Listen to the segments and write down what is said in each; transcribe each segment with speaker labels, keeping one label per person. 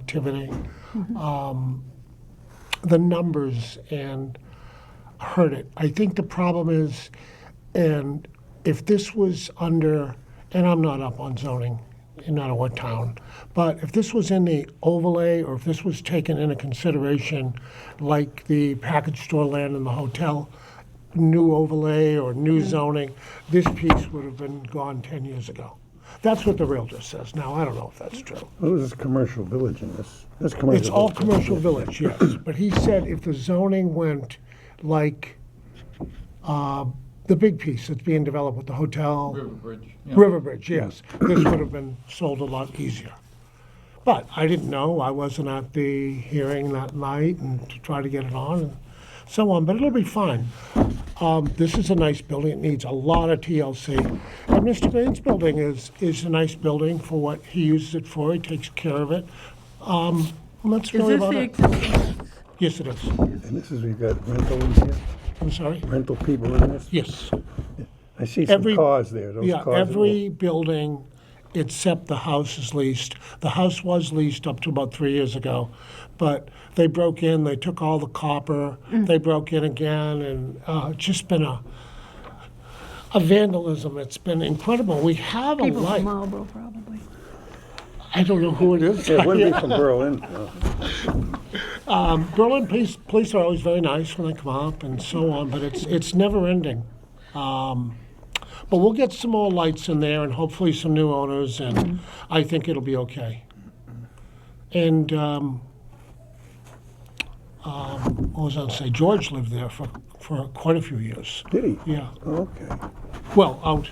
Speaker 1: activity. Um, The numbers and hurt it. I think the problem is, and if this was under, and I'm not up on zoning, in not what town, but if this was in the overlay or if this was taken into consideration, like the package store land and the hotel, new overlay or new zoning, this piece would have been gone 10 years ago. That's what the realtor says. Now, I don't know if that's true.
Speaker 2: Well, this is commercial village in this. That's commercial.
Speaker 1: It's all
Speaker 2: village.
Speaker 1: commercial village, yes, but he said if the zoning went like, uh, the big piece that's being developed with the hotel.
Speaker 3: Riverbridge. yeah.
Speaker 1: Riverbridge, yes, this would have been sold a lot easier. But I didn't know, I wasn't at the hearing that night and to try to get it on and so on, but it'll be fine. Um, this is a nice building, it needs a lot of TLC. And Mr. Bain's building is, is a nice building for what he uses it for, he takes care of it. Um, and that's
Speaker 4: Is
Speaker 1: really
Speaker 4: this
Speaker 1: about
Speaker 4: the
Speaker 1: it.
Speaker 4: existing?
Speaker 1: Yes, it is,
Speaker 2: And this is, we've got rental in here,
Speaker 1: I'm sorry,
Speaker 2: rental people in this.
Speaker 1: yes.
Speaker 2: I see some
Speaker 1: Every-
Speaker 2: cars there, those
Speaker 1: Yeah,
Speaker 2: cars. that will-
Speaker 1: every building except the house is leased. The house was leased up to about three years ago, but they broke in, they took all the copper,
Speaker 4: Mm.
Speaker 1: they broke in again, and uh, it's just been a, a vandalism. It's been incredible. We have a
Speaker 4: People from
Speaker 1: light.
Speaker 4: Marlboro, probably.
Speaker 1: I don't know who it is.
Speaker 2: Yeah, it wouldn't be from Berlin. no.
Speaker 1: Berlin police, police are always very nice when they come up and so on, but it's it's never ending. Um, but we'll get some more lights in there and hopefully some new owners, and I think it'll be okay. And um, um, what was I going to say? George lived there for, for quite a few years.
Speaker 2: Did he?
Speaker 1: Yeah.
Speaker 2: Oh, Okay.
Speaker 1: Well, out.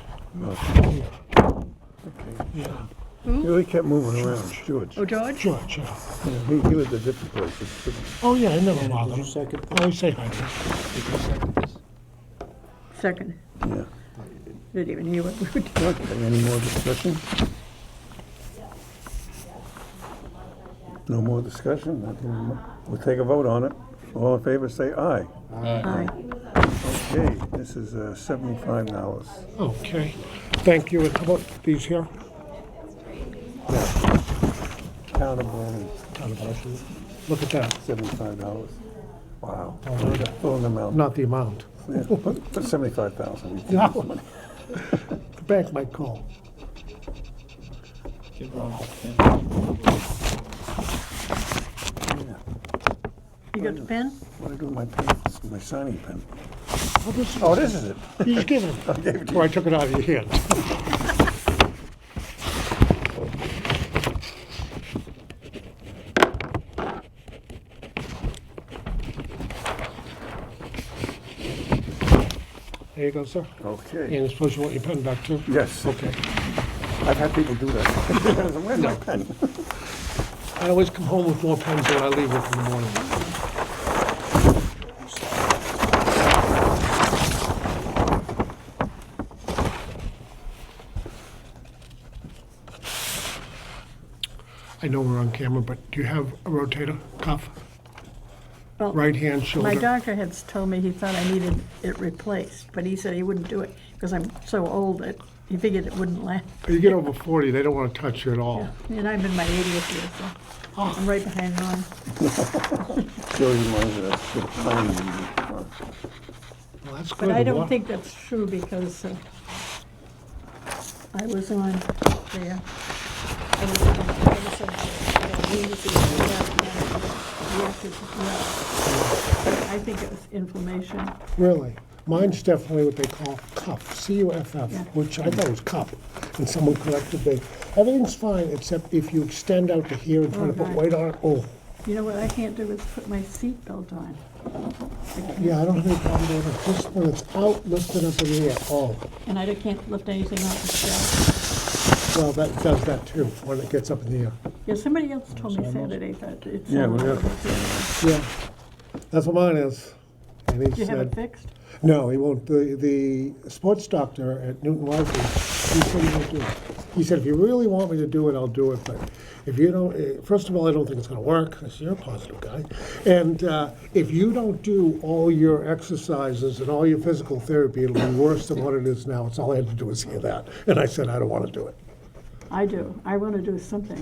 Speaker 1: Yeah.
Speaker 2: He really kept moving around, George.
Speaker 4: Oh, George?
Speaker 1: George, yeah.
Speaker 2: Yeah, He he lived at different places.
Speaker 1: Oh, yeah, I never bothered him.
Speaker 5: second,
Speaker 1: I always say hi to him.
Speaker 5: did you second this?
Speaker 4: Second.
Speaker 2: Yeah.
Speaker 4: Didn't even hear what we were doing.
Speaker 2: Okay, any more discussion? No more discussion? I think We'll take a vote on it. All in favor, say aye.
Speaker 4: Aye.
Speaker 2: Okay, this is uh, seventy-five dollars.
Speaker 1: Okay. Thank you. How about these here?
Speaker 2: Countable and
Speaker 1: Look at that.
Speaker 2: seventy-five dollars. Wow.
Speaker 1: really?
Speaker 2: Full amount.
Speaker 1: Not the amount.
Speaker 2: Yeah, Put put seventy-five thousand.
Speaker 1: No. The bank might call.
Speaker 5: Give Ron a pen.
Speaker 4: You got the pen?
Speaker 2: What do I do with my pens, my signing pen?
Speaker 1: Oh, this is-
Speaker 2: Oh, this is it.
Speaker 1: You just gave it. Or I took it out of your hand. There you go, sir.
Speaker 2: Okay.
Speaker 1: And I suppose you want your pen back too?
Speaker 2: Yes.
Speaker 1: Okay.
Speaker 2: I've had people do that. Where's my pen?
Speaker 1: I always come home with more pens than I leave with in the morning. I know we're on camera, but do you have a rotator cuff?
Speaker 4: Well,
Speaker 1: Right hand
Speaker 4: My
Speaker 1: shoulder?
Speaker 4: doctor had told me he thought I needed it replaced, but he said he wouldn't do it because I'm so old that he figured it wouldn't last.
Speaker 1: You get over 40, they don't want to touch you at all.
Speaker 4: And I'm in my 80th year, so I'm right behind Ron.
Speaker 2: Joey reminds me that's good planning.
Speaker 1: Well, that's good.
Speaker 4: But I
Speaker 1: Wa-
Speaker 4: don't think that's true because uh, I was on there. I was on- I was on- yeah, we used to do that, and we had to- yeah. But I think it was inflammation.
Speaker 1: Really? Mine's definitely what they call cuff, C-U-F-F,
Speaker 4: Yeah.
Speaker 1: which I thought was cup, and someone corrected me. Everything's fine, except if you extend out to here and try to put
Speaker 4: Okay.
Speaker 1: weight on it, oh,
Speaker 4: You know what I can't do is put my seatbelt on.
Speaker 1: yeah, I don't have any problem doing it. This one, it's out, lifted up in the air, oh.
Speaker 4: And I can't lift anything off the shelf.
Speaker 1: Well, that does that too, when it gets up in the air.
Speaker 4: Yeah, somebody else told me Saturday that it's.
Speaker 2: Yeah, we got-
Speaker 1: Yeah, that's what mine is. And
Speaker 4: Do
Speaker 1: he
Speaker 4: you have it
Speaker 1: said,
Speaker 4: fixed?
Speaker 1: no, he won't, the, the sports doctor at Newton Wesley, he said he won't do it. He said, if you really want me to do it, I'll do it, but if you don't, eh, first of all, I don't think it's gonna work, 'cause you're a positive guy. And, uh, if you don't do all your exercises and all your physical therapy, it'll be worse than what it is now. It's all I had to do was hear that. And I said, I don't wanna do it.
Speaker 4: I do. I want to do something.